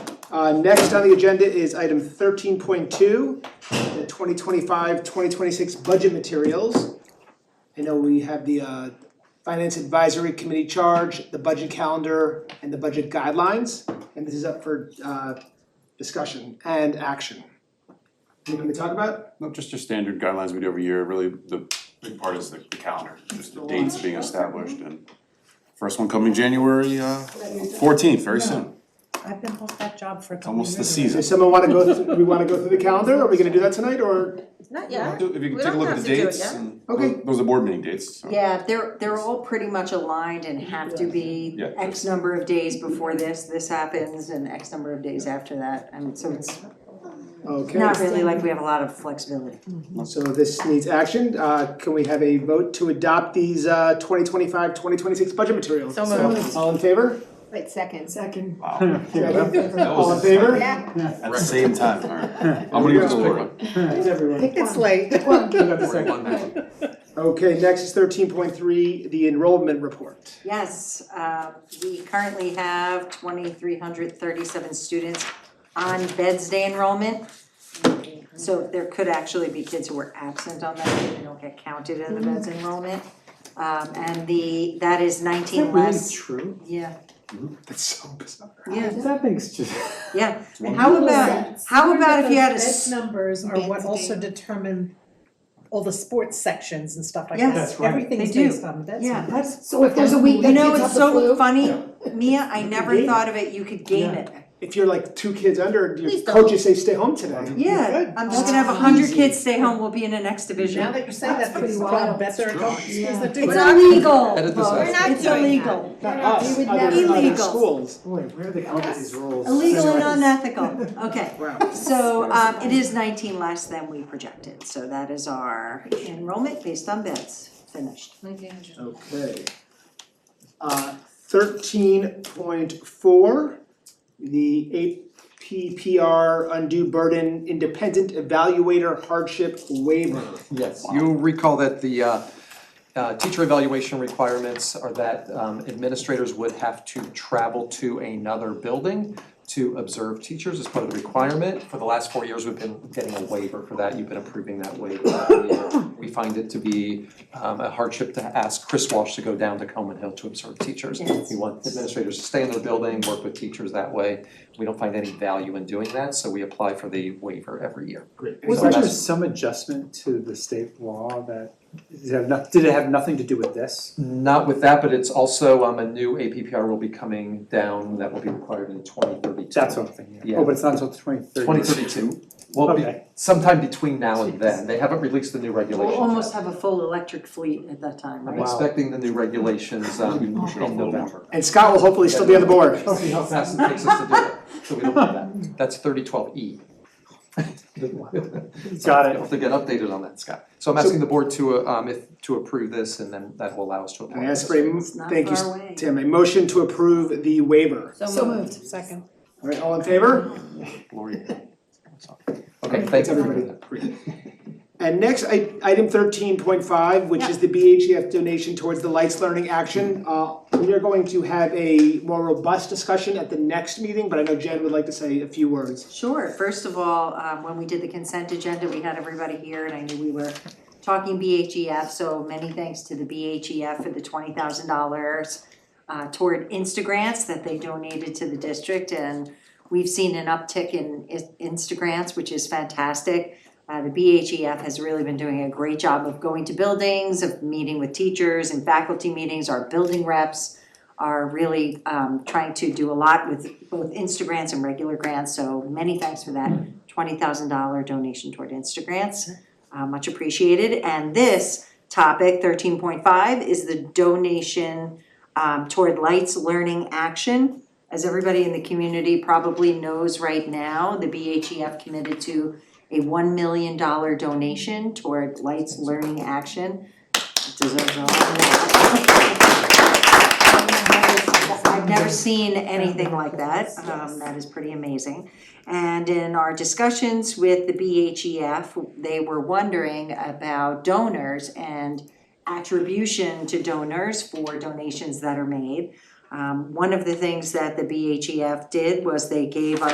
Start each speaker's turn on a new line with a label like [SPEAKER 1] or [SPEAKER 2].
[SPEAKER 1] Uh, next on the agenda is item thirteen point two, the 2025-2026 budget materials. I know we have the, uh, Finance Advisory Committee charge, the budget calendar, and the budget guidelines, and this is up for, uh, discussion and action. Anything to talk about?
[SPEAKER 2] No, just your standard guidelines we do every year, really, the big part is the the calendar, just the dates being established and first one coming January uh fourteenth, very soon,
[SPEAKER 3] I've been off that job for a couple of
[SPEAKER 2] almost the
[SPEAKER 3] years.
[SPEAKER 1] Does
[SPEAKER 2] season.
[SPEAKER 1] someone wanna go, through- we wanna go through the calendar, are we gonna do that tonight, or?
[SPEAKER 3] Not
[SPEAKER 2] If
[SPEAKER 3] yet.
[SPEAKER 2] you can
[SPEAKER 3] We
[SPEAKER 2] take a
[SPEAKER 3] don't
[SPEAKER 2] look at
[SPEAKER 3] have
[SPEAKER 2] the
[SPEAKER 3] to do it
[SPEAKER 2] dates
[SPEAKER 3] yet.
[SPEAKER 2] and
[SPEAKER 1] Okay.
[SPEAKER 2] those are board meeting dates, so.
[SPEAKER 4] Yeah, they're, they're all pretty much aligned and have to be
[SPEAKER 2] Yeah.
[SPEAKER 4] X number of days before this, this happens, and X number of days after that. I mean, so it's
[SPEAKER 1] Okay,
[SPEAKER 4] not really like we have a lot of flexibility.
[SPEAKER 1] so this needs action, uh, can we have a vote to adopt these, uh, 2025-2026 budget materials?
[SPEAKER 3] So moved.
[SPEAKER 1] All in favor?
[SPEAKER 5] Wait, second. Second.
[SPEAKER 2] Wow,
[SPEAKER 1] Second?
[SPEAKER 2] That was
[SPEAKER 1] All in favor?
[SPEAKER 5] Yeah,
[SPEAKER 2] at the same time, alright, I'm gonna give this a look.
[SPEAKER 1] Thanks, everyone.
[SPEAKER 5] pick this late.
[SPEAKER 1] You got the second. Okay, next is thirteen point three, the enrollment report.
[SPEAKER 4] Yes, uh, we currently have twenty-three hundred thirty-seven students on beds day enrollment. So there could actually be kids who were absent on that, day. they don't get counted in the beds enrollment. Um, and the, that is nineteen less,
[SPEAKER 6] true?
[SPEAKER 4] yeah,
[SPEAKER 1] That's so bizarre.
[SPEAKER 4] yeah,
[SPEAKER 6] That thing's just.
[SPEAKER 4] yeah. And how about, how about if you had a,
[SPEAKER 3] Those
[SPEAKER 4] s-
[SPEAKER 3] bed numbers are
[SPEAKER 5] Beds
[SPEAKER 3] what also
[SPEAKER 5] being-
[SPEAKER 3] determine all the sports sections and stuff like
[SPEAKER 4] Yes.
[SPEAKER 3] that.
[SPEAKER 6] That's right.
[SPEAKER 3] Everything's
[SPEAKER 4] They do.
[SPEAKER 3] based on beds.
[SPEAKER 4] Yeah.
[SPEAKER 3] That's-
[SPEAKER 5] So if there's a week
[SPEAKER 4] you
[SPEAKER 5] that
[SPEAKER 4] know,
[SPEAKER 5] kids have
[SPEAKER 4] it's
[SPEAKER 5] the flu.
[SPEAKER 4] so funny, Mia, I never
[SPEAKER 6] game
[SPEAKER 4] thought of it, you could game
[SPEAKER 6] Yeah.
[SPEAKER 4] it.
[SPEAKER 1] If you're like two kids under, your
[SPEAKER 3] Please don't.
[SPEAKER 1] coaches say stay home today.
[SPEAKER 4] Yeah,
[SPEAKER 1] Good.
[SPEAKER 4] I'm just gonna have a hundred kids stay home, we'll be in the next division.
[SPEAKER 3] Now that you're saying that,
[SPEAKER 5] That's pretty
[SPEAKER 3] people
[SPEAKER 5] wild.
[SPEAKER 3] beds are going, schools that do
[SPEAKER 4] It's
[SPEAKER 3] that.
[SPEAKER 4] illegal.
[SPEAKER 7] Edit this out.
[SPEAKER 4] Lois.
[SPEAKER 7] We're
[SPEAKER 5] not
[SPEAKER 4] It's
[SPEAKER 5] doing
[SPEAKER 4] illegal.
[SPEAKER 1] Not us,
[SPEAKER 5] You would
[SPEAKER 1] other,
[SPEAKER 4] never-
[SPEAKER 1] other
[SPEAKER 4] Illegal.
[SPEAKER 1] schools.
[SPEAKER 6] Boy, where do they come up with these rules?
[SPEAKER 4] Illegal and unethical, okay.
[SPEAKER 1] Wow.
[SPEAKER 4] So um it is nineteen less than we projected, so that is our enrollment based on beds finished.
[SPEAKER 1] Okay. Uh, thirteen point four, the APPR undue burden independent evaluator hardship waiver.
[SPEAKER 7] Yes, you'll recall that the uh, uh, teacher evaluation requirements are that um, administrators would have to travel to another building to observe teachers as part of the requirement. For the last four years, we've been getting a waiver for that. You've been approving that waiver every year. We find it to be um, a hardship to ask Chris Walsh to go down to Coman Hill to observe teachers.
[SPEAKER 4] Yes.
[SPEAKER 7] We want administrators to stay in their building, work with teachers that way. We don't find any value in doing that, so we apply for the waiver every year.
[SPEAKER 6] Wasn't there some adjustment to the state law that, does it have noth- did it have nothing to do with this?
[SPEAKER 7] Not with that, but it's also, um, a new APPR will be coming down that will be required in twenty thirty-two.
[SPEAKER 6] That's what I'm thinking.
[SPEAKER 7] Yeah.
[SPEAKER 6] Oh, but it's not until twenty thirty.
[SPEAKER 7] Twenty thirty-two, well, be-
[SPEAKER 6] Okay.
[SPEAKER 7] sometime between now and then, they haven't released the new regulations
[SPEAKER 4] We'll
[SPEAKER 7] yet.
[SPEAKER 4] almost have a full electric fleet at that time,
[SPEAKER 7] I'm
[SPEAKER 4] right?
[SPEAKER 7] expecting the new regulations, um, in November.
[SPEAKER 1] And Scott will hopefully still be on the board.
[SPEAKER 7] Let's see how fast it takes us to do it, so we don't do that, that's thirty twelve E.
[SPEAKER 6] Got
[SPEAKER 7] I'll
[SPEAKER 6] it.
[SPEAKER 7] have to get updated on that, Scott, so I'm asking the board to, uh, um, if, to approve this, and then that will allow us to apply.
[SPEAKER 1] I ask
[SPEAKER 7] this.
[SPEAKER 1] for a, mo-
[SPEAKER 4] It's not
[SPEAKER 1] thank
[SPEAKER 4] far
[SPEAKER 1] you,
[SPEAKER 4] away.
[SPEAKER 1] Tim, a motion to approve the waiver.
[SPEAKER 5] So moved.
[SPEAKER 3] Second.
[SPEAKER 1] All right, all in favor?
[SPEAKER 7] Gloria. Okay, thanks
[SPEAKER 1] everybody.
[SPEAKER 7] everybody.
[SPEAKER 1] And next, i- item thirteen point five, which is the BHF donation towards the Lights Learning Action. Uh, we are going to have a more robust discussion at the next meeting, but I know Jen would like to say a few words.
[SPEAKER 4] Sure, first of all, um, when we did the consent agenda, we had everybody here and I knew we were talking BHEF, so many thanks to the BHEF for the twenty thousand dollars uh, toward Instagrants that they donated to the district and we've seen an uptick in I- Instagrants, which is fantastic. Uh, the BHEF has really been doing a great job of going to buildings, of meeting with teachers and faculty meetings, our building reps are really um trying to do a lot with both Instagrants and regular grants, so many thanks for that twenty thousand dollar donation toward Instagrants. Uh much appreciated, and this topic thirteen point five is the donation um toward Lights Learning Action. As everybody in the community probably knows right now, the BHEF committed to a one million dollar donation toward Lights Learning Action. It Deserves a lot of- I've never seen anything like that, um, that is pretty amazing. And in our discussions with the BHEF, they were wondering about donors and attribution to donors for donations that are made. Um, one of the things that the BHEF E did was they gave us.